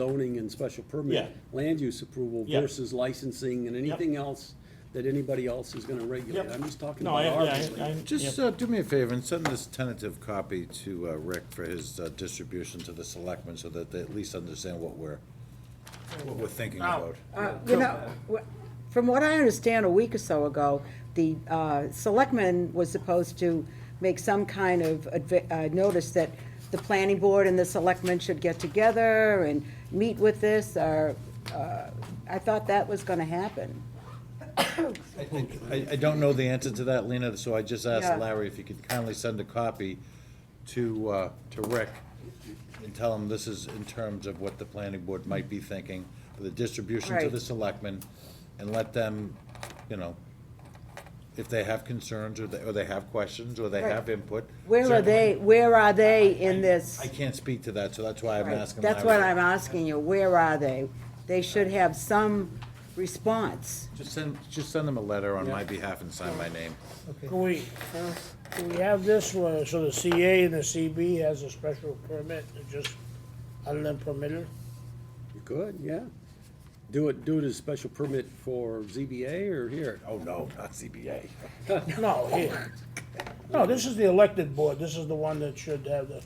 zoning and special permit, Yeah. land use approval Yeah. versus licensing and anything else that anybody else is gonna regulate. Yep. I'm just talking No, about I, our. yeah, I, I. regulation. Just yeah. uh, do me a favor and send this tentative copy to uh, Rick for his uh, distribution to the selectmen so that they at least understand what we're, what we're thinking about. Uh, You know, wh- from what I understand, a week or so ago, the uh, selectman was supposed to make some kind of advi- uh, notice that the planning board and the selectmen should get together and meet with this, or, uh, I thought that was gonna happen. I, I don't know the answer to that, Lena, so I just asked Yeah. Larry if you could kindly send a copy to, uh, to Rick and tell him this is in terms of what the planning board might be thinking for the distribution to Right. the selectmen and let them, you know, if they have concerns or they, or they have questions or they Right. have input. Where are certainly- they, where are they in this? I can't speak to that, so that's why I'm Right. asking. That's Larry. what I'm asking you, where are they? They should have some response. Just send, just send them a letter on my behalf and sign my name. Can we, uh, can we have this one, so the CA and the CB has a special permit, that just unlimited? You could, yeah. Do it, do it as special permit for ZBA or here. Oh, no, not CBA. No, here. No, this is the elected board, this is the one that should have the.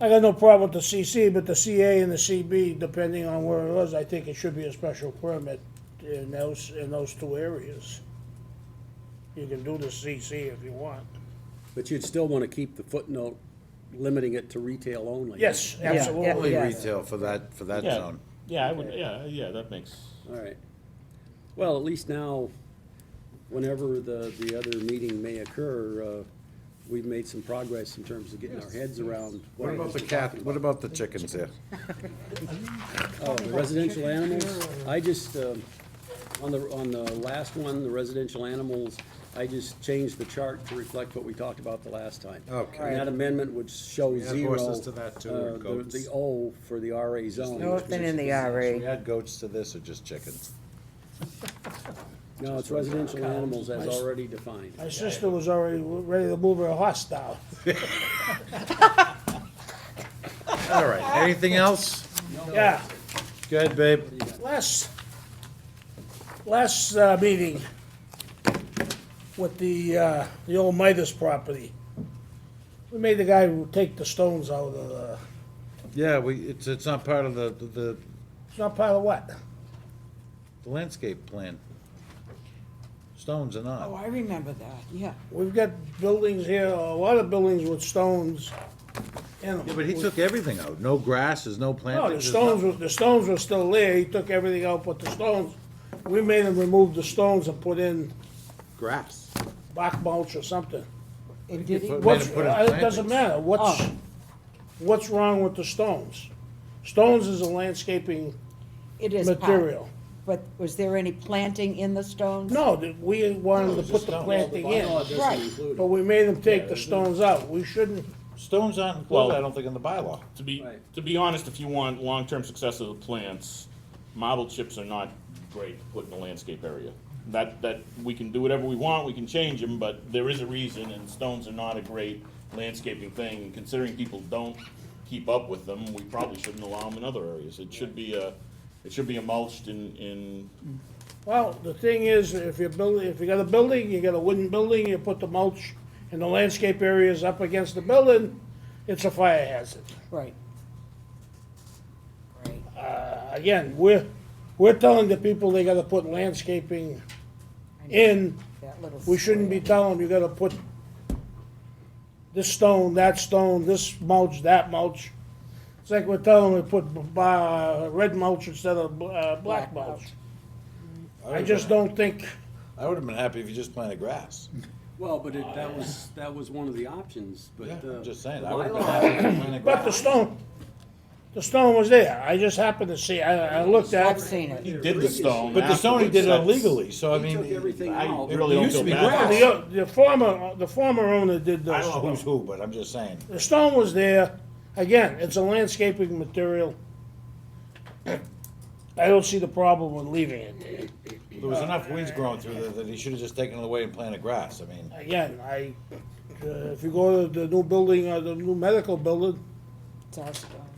I got no problem with the CC, but the CA and the CB, depending on where it was, I think it should be a special permit in those, in those two areas. You can do the CC if you want. But you'd still wanna keep the footnote limiting it to retail only. Yes, Yeah, yeah, absolutely. Only yeah. retail for that, for that Yeah. zone. Yeah, I would, yeah, yeah, that makes, All right. Well, at least now, whenever the, the other meeting may occur, uh, we've made some progress in terms of getting our heads around. What it about is the we're cat, talking what about. about the chickens there? Oh, the residential animals, I just, um, on the, on the last one, the residential animals, I just changed the chart to reflect what we talked about the last time. Okay. And that amendment would show add zero. horses to that too, or uh, the- goats? The O for the RA zone. Northern in the Should we RA. add goats to this or just chickens? No, it's residential animals as already defined. My sister was already ready to move her horse down. All right, anything else? Yeah, Go ahead, babe. last, last uh, meeting with the, uh, the old Midas property. We made the guy take the stones out of the, Yeah, we, it's, it's not part of the, the it's not part of what? the landscape plan. Stones are not. Oh, I remember that, yeah. We've got buildings here, a lot of buildings with stones in them. Yeah, but he took everything out. No grasses, no No, plantings. the there's stones, no- were- the stones were still there, he took everything out but the stones. We made him remove the stones and put in Grass. bark mulch or something. And did he? Put- What's, made him put in uh, it doesn't plantings. matter, what's, Oh. what's wrong with the stones? Stones is a landscaping It is part- material. But was there any planting in the stones? No, that we wanted to put the planting in, but we made them take the stones out, we shouldn't, Stones aren't Well- included, I don't think, in the bylaw. to be, Right. to be honest, if you want long-term success of the plants, model chips are not great to put in a landscape area. That, that, we can do whatever we want, we can change them, but there is a reason, and stones are not a great landscaping thing. And Considering people don't keep up with them, we probably shouldn't allow them in other areas. It should be a, it should be emulched in, in, well, the thing is, if you're building, if you got a building, you got a wooden building, you put the mulch and the landscape areas up against the building, it's a fire hazard. Right. Right. Again, we're, we're telling the people they gotta put landscaping in That little We shouldn't be telling them, you gotta put this stone, that stone, this mulch, that mulch. It's like we're telling them to put, b- b- uh, red mulch instead of, bl- uh, black Black mulch. mulch. I just don't think, I would've been happy if you just planted grass. Well, but it, that was, that was one of the options, but, Yeah, uh. I'm just saying, the I would've been bylaw- happy if you planted but the grass. stone, the stone was there, I just happened to see, I, I looked at. I've seen it. he did the stone. But the Sony did it afterwards. That's- illegally, so I He mean. took everything I- out. it Really don't used to feel be bad. grass. The, o- the former, the former owner did I those. don't know who's who, but I'm just saying. The stone was there, again, it's a landscaping material. I don't see the problem with leaving it there. There was enough weeds growing through there that he should have just taken it away and planted grass. I mean, Again, I, uh, if you go to the new building, uh, the new medical building, It's all stone.